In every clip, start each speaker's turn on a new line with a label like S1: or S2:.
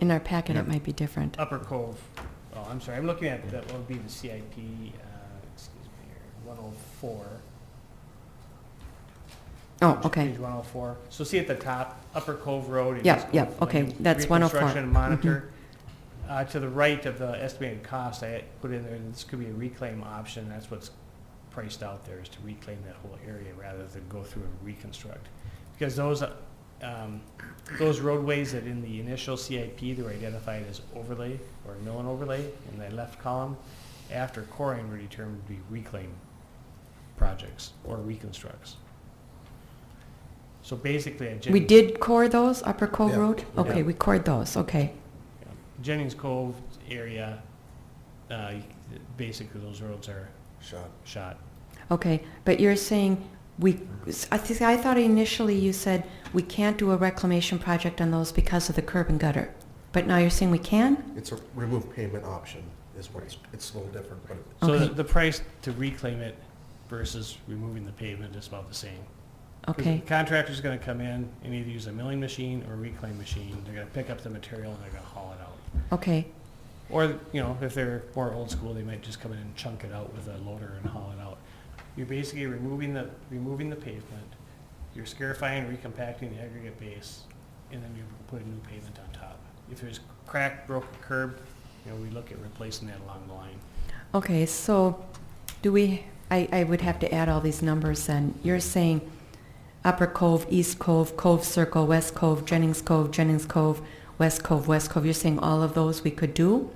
S1: in our packet, it
S2: Yeah.
S1: might be different.
S3: Um, Upper Cove, oh, I'm sorry, I'm looking at, that would be the CIP, uh, excuse me, here, 104.
S1: Oh, okay,
S3: Page 104. So see at the top, Upper Cove Road. and
S1: Yep,
S3: East
S1: yep,
S3: Cove Lane,
S1: okay, that's 104.
S3: Reconstruction and
S1: Mm-hmm.
S3: monitor. Uh, To the right of the estimated cost, I put in there, this could be a reclaim option. That's what's priced out there, is to reclaim that whole area rather than go through and reconstruct. Because those, uh, um, those roadways that in the initial CIP, they were identified as overlay or mill and overlay in the left column, after coring were determined to be reclaim projects or reconstructs. So basically, at
S1: we
S3: Jennings,
S1: did core those, Upper Cove
S2: Yeah.
S1: Road?
S2: Yeah.
S1: Okay, we cored those, okay.
S3: Jennings Cove area, uh, basically those roads are
S2: Shot.
S3: shot.
S1: Okay, but you're saying we, I think, I thought initially you said we can't do a reclamation project on those because of the curb and gutter. But now you're saying we can?
S2: It's a remove payment option is what it's, it's a little different, but
S3: So the,
S1: Okay.
S3: the price to reclaim it versus removing the pavement is about the same. 'Cause
S1: Okay,
S3: the Contractor's gonna come in and either use a milling machine or reclaim machine. They're gonna pick up the material and they're gonna haul it out.
S1: okay,
S3: Or, you know, if they're more old school, they might just come in and chunk it out with a loader and haul it out. You're basically removing the, removing the pavement, you're scarifying, recompacting the aggregate base, and then you put a new pavement on top. If there's crack, broken curb, you know, we look at replacing that along the line.
S1: okay, so do we, I, I would have to add all these numbers then. You're saying Upper Cove, East Cove, Cove Circle, West Cove, Jennings Cove, Jennings Cove, West Cove, West Cove, you're saying all of those we could do?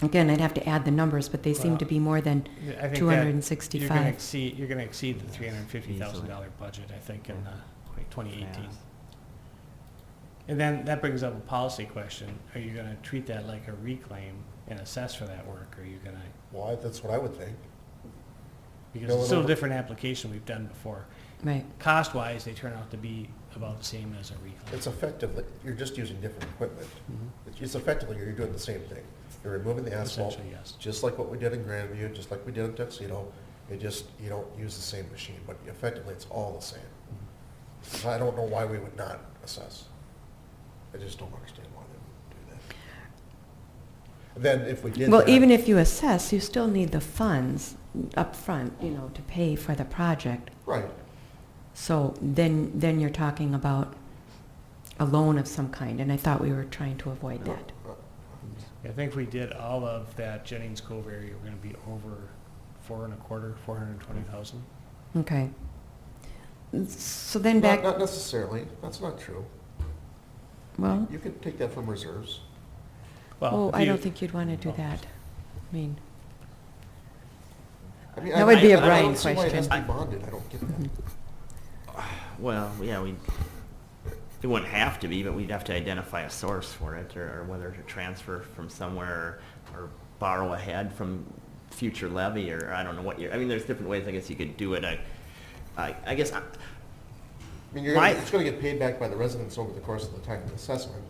S1: Again, I'd have to add the numbers, but they seem
S3: Well,
S1: to be more than
S3: I think that
S1: two hundred and
S3: You're gonna
S1: sixty-five.
S3: exceed, you're gonna exceed the three hundred and fifty thousand dollar budget, I think, in uh, twenty eighteen. And then that brings up a policy question. Are you gonna treat that like a reclaim and assess for that work? Or are you gonna
S2: why, that's what I would think.
S3: Because
S2: Bill
S3: it's
S2: it
S3: still a
S2: over.
S3: different application we've done before.
S1: Right,
S3: Cost-wise, they turn out to be about the same as a reclaim.
S2: It's effectively, you're just using different equipment. It's- It's effectively, you're doing the same thing. You're removing the asphalt,
S3: Essentially, yes.
S2: just like what we did in Grandview, just like we did in Tuxedo. It just, you don't use the same machine, but effectively, it's all the same. So I don't know why we would not assess. I just don't understand why they would do that. Then if we did
S1: well,
S2: that-
S1: even if you assess, you still need the funds up front, you know, to pay for the project.
S2: Right,
S1: So then, then you're talking about a loan of some kind, and I thought we were trying to avoid
S2: No.
S1: that.
S3: I think if we did all of that Jennings Cove area, we're gonna be over four and a quarter, four hundred and twenty thousand.
S1: Okay. So then
S2: Not,
S1: back,
S2: not necessarily, that's not true.
S1: well,
S2: You could take that from reserves.
S1: oh, I don't think you'd want to do that. I mean,
S2: I mean,
S1: That
S2: I-
S1: would be a Mm-hmm.
S2: I- I
S1: Brian
S2: don't see why it has to be
S4: question.
S2: bonded, I don't get that.
S4: Well, yeah, we, it wouldn't have to be, but we'd have to identify a source for it, or, or whether to transfer from somewhere, or borrow ahead from future levy, or I don't know what you're, I mean, there's different ways, I guess you could do it, I, I, I guess, uh, I-
S2: I mean, you're, gonna-
S4: My-
S2: it's gonna get paid back by the residents over the course of the time of the assessment.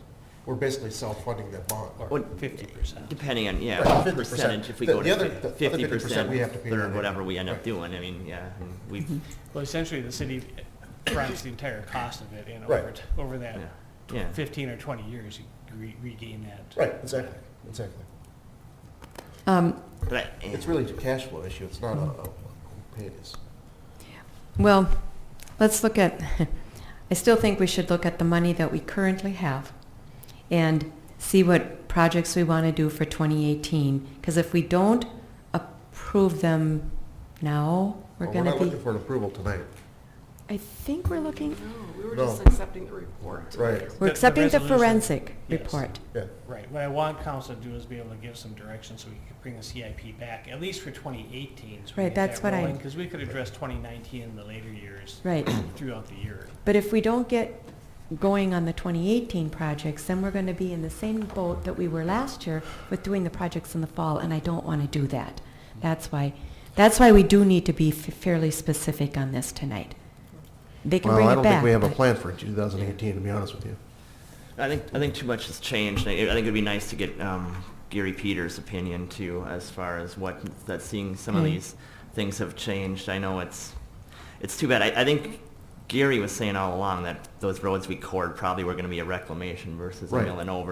S2: We're basically self-funding that bond.
S3: Or
S4: What-
S3: fifty percent.
S4: depending on, yeah,
S2: Right,
S4: what
S2: 50%.
S4: percentage, if we
S2: The-
S4: go
S2: the other-
S4: to
S2: the other
S4: fifty
S2: 50%
S4: percent,
S2: we have to pay
S4: or
S2: anyway.
S4: whatever we end
S2: Right.
S4: up doing, I mean, yeah, we,
S3: Well, essentially, the city fronts the entire cost of it, and over,
S2: Right.
S3: t- over that
S4: yeah,
S3: tw-
S4: yeah.
S3: fifteen or twenty years, you re- regain that.
S2: Right, exactly, exactly.
S1: um,
S4: But I- eh.
S2: It's really a cash flow issue, it's not a, a who paid us.
S1: well, let's look at, I still think we should look at the money that we currently have and see what projects we want to do for 2018, because if we don't approve them now, we're
S2: Well, Oh, We're
S1: going to
S2: not
S1: be,
S2: looking for an approval tonight.
S1: I think we're looking,
S5: No, we were
S2: No.
S5: just accepting the report.
S2: Right.
S1: we're
S3: The- the
S1: accepting the
S3: resolution.
S1: forensic
S3: Yes.
S1: report.
S2: Yeah,
S3: Right, what I want council to do is be able to give some direction so we can bring the CIP back, at least for twenty eighteen.
S1: Right, that's what I-
S3: Because we could address twenty nineteen in the later years
S1: Right.
S3: throughout the year.
S1: But if we don't get going on the 2018 projects, then we're going to be in the same boat that we were last year with doing the projects in the fall, and I don't want to do that. That's why, that's why we do need to be f- fairly specific on this tonight. They can
S2: well,
S1: bring
S2: I
S1: it
S2: don't think
S1: back.
S2: we have a
S1: but-
S2: plan for two thousand eighteen, to be honest with you.
S4: I think I think too much has changed. I, I think it'd be nice to get um, Gary Peters' opinion too, as far as what that seeing some of
S1: Mm.
S4: these things have changed. I know it's it's too bad. I, I think Gary was saying all along that those roads we cored probably were going to be a reclamation versus
S2: Right.
S4: a mill and over.